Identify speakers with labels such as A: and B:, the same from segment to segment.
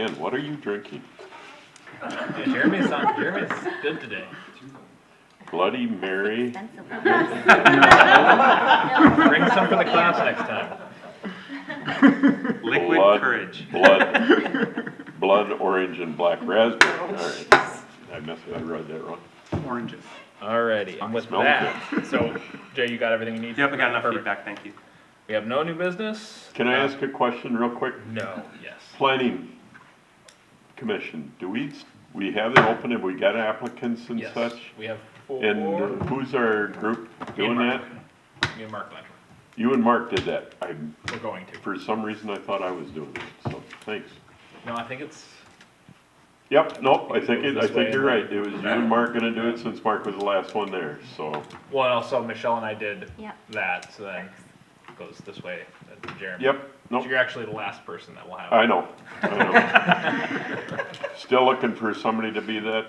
A: Again, what are you drinking?
B: Yeah, Jeremy's on, Jeremy's good today.
A: Bloody Mary?
B: Bring some for the class next time.
C: Liquid
A: blood-
C: courage.
A: Blood, blood orange and black raspberry, all right. I messed, I read that wrong.
C: Oranges.
B: Alrighty, and with
A: Smells
B: that, so Jay, you got everything you need?
C: Yep, I got enough
B: Perfect.
C: feedback, thank you.
B: We have no new business?
A: Can I ask a question real quick?
B: No, yes.
A: Planning Commission, do we, we have it open, have we got applicants and
B: Yes,
A: such?
B: We have four, me
A: And who's our group doing
B: Mark.
A: that?
B: and Mark Lemon,
A: You and Mark did that. I,
B: we're going to.
A: for some reason, I thought I was doing it, so, thanks.
B: No, I think it's,
A: Yep, nope, I
B: I think
A: think,
B: it
A: it-
B: goes
A: I
B: this way
A: think you're
B: and
A: right, it was you and Mark gonna do it since Mark was the last one there, so.
B: well, and also Michelle and I did
D: Yep.
B: that, so then it goes this way, uh, Jeremy.
A: Yep,
B: So
A: nope,
B: You're actually the last person that will have.
A: I know, I know. Still looking for somebody to be that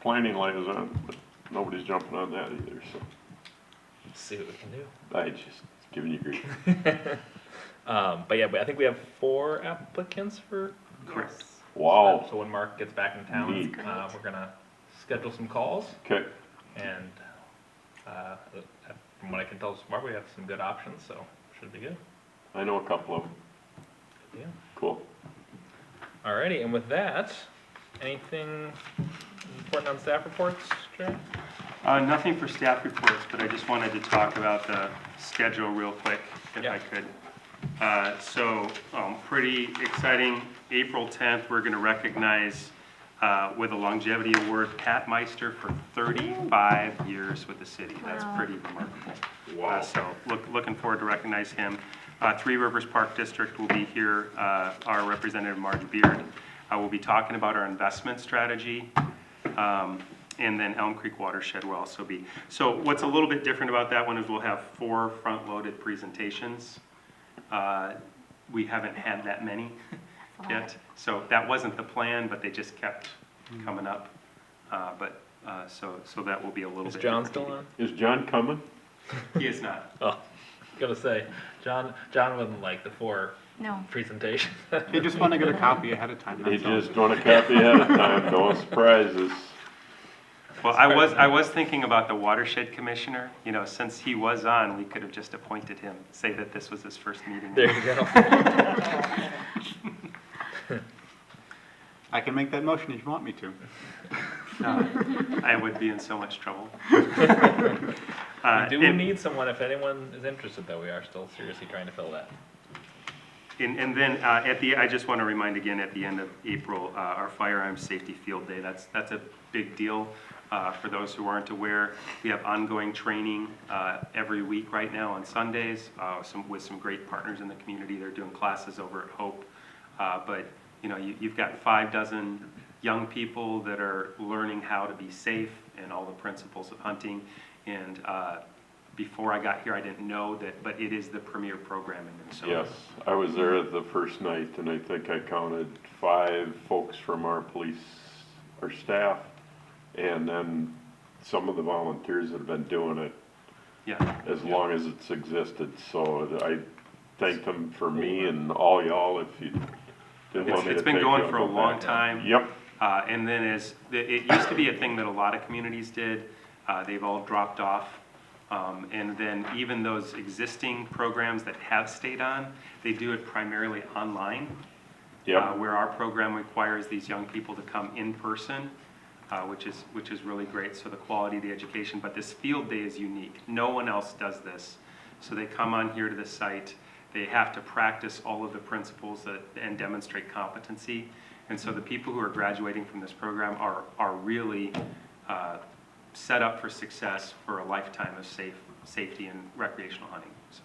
A: planning liaison, but nobody's jumping on that either, so.
B: See what we can do.
A: I just giving you grief.
B: Um, but yeah, but I think we have four applicants for
C: Correct. Oh.
A: Wow,
B: Um, So when Mark gets back in town,
A: Neat.
B: uh, we're gonna schedule some calls
A: okay,
B: and, uh, from what I can tell so far, we have some good options, so should be good.
A: I know a couple of them,
B: Yeah.
A: cool.
B: Alrighty, and with that, anything important on staff reports, Jerry?
C: Uh, nothing for staff reports, but I just wanted to talk about the schedule real quick, if
B: Yeah.
C: I could. Uh, so, um, pretty exciting, April tenth, we're gonna recognize, uh, with a longevity award, Pat Meister for thirty-five years with the city. That's
D: Wow.
C: pretty remarkable.
A: Wow.
C: Uh, So, look, looking forward to recognize him. Uh, Three Rivers Park District will be here, uh, our representative Marge Beard. Uh, we'll be talking about our investment strategy, um, and then Elm Creek Watershed will also be. So what's a little bit different about that one is we'll have four front-loaded presentations. Uh, We haven't had that many
D: That's a lot.
C: yet, so that wasn't the plan, but they just kept coming up. Uh, But, uh, so, so that will be a little bit.
B: Is John
C: different.
B: still on?
A: Is John coming?
C: He is not.
B: Oh, gotta say, John, John wouldn't like the four
D: No.
B: presentation.
E: They just want to get a copy ahead of time.
A: He
E: that's all.
A: just want a copy ahead of time, no surprises.
C: Well, I was, I was thinking about the watershed commissioner, you know, since he was on, we could have just appointed him, say that this was his first meeting.
B: There you go.
E: I can make that motion if you want me to.
C: I would be in so much trouble.
B: We
C: Uh,
B: do
C: and-
B: need someone, if anyone is interested, though, we are still seriously trying to fill that.
C: And, and then, uh, at the, I just want to remind again, at the end of April, uh, our firearms safety field day, that's, that's a big deal. Uh, for those who aren't aware, we have ongoing training, uh, every week right now on Sundays, uh, some, with some great partners in the community. They're doing classes over at Hope. Uh, but, you know, you, you've got five dozen young people that are learning how to be safe and all the principles of hunting. And, uh, before I got here, I didn't know that, but it is the premier program in
A: Yes,
C: Minnesota.
A: I was there the first night and I think I counted five folks from our police, our staff, and then some of the volunteers that have been doing it
C: Yeah.
A: as long as it's existed, so I thank them for me and all y'all if you didn't want
C: It's,
A: me to
C: it's been
A: take
C: going
A: you,
C: for
A: go
C: a long
A: back.
C: time.
A: Yep,
C: Uh, and then as, it, it used to be a thing that a lot of communities did, uh, they've all dropped off. Um, and then even those existing programs that have stayed on, they do it primarily online. uh,
A: yep,
C: Where our program requires these young people to come in person, uh, which is, which is really great, so the quality of the education. But this field day is unique, no one else does this. So they come on here to the site, they have to practice all of the principles that, and demonstrate competency. And so the people who are graduating from this program are, are really uh, set up for success for a lifetime of safe, safety and recreational hunting, so.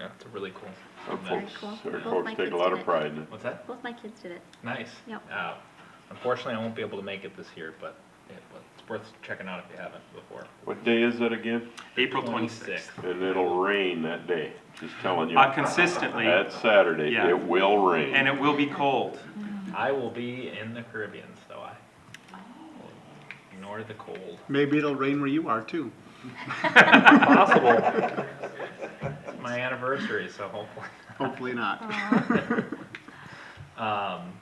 B: Yeah, it's a really cool.
A: our
B: event.
D: Very
A: folks,
D: cool.
A: our
D: Both
A: folks
D: my
A: take
D: kids
A: a lot
D: did
A: of
D: it.
A: pride in it.
B: What's that?
D: Both my kids did it.
B: Nice.
D: Yep.
B: Uh, unfortunately, I won't be able to make it this year, but it, but it's worth checking out if you haven't before.
A: What day is it again?
C: April 26th.
A: And it'll rain that day, just telling you.
C: Uh, Consistently,
A: That Saturday,
C: Yeah.
A: it will rain.
C: and it will be cold.
B: I will be in the Caribbean, so I will ignore the cold.
E: Maybe it'll rain where you are too.
B: Possible. it's my anniversary, so hopefully.
E: Hopefully not.
B: Um,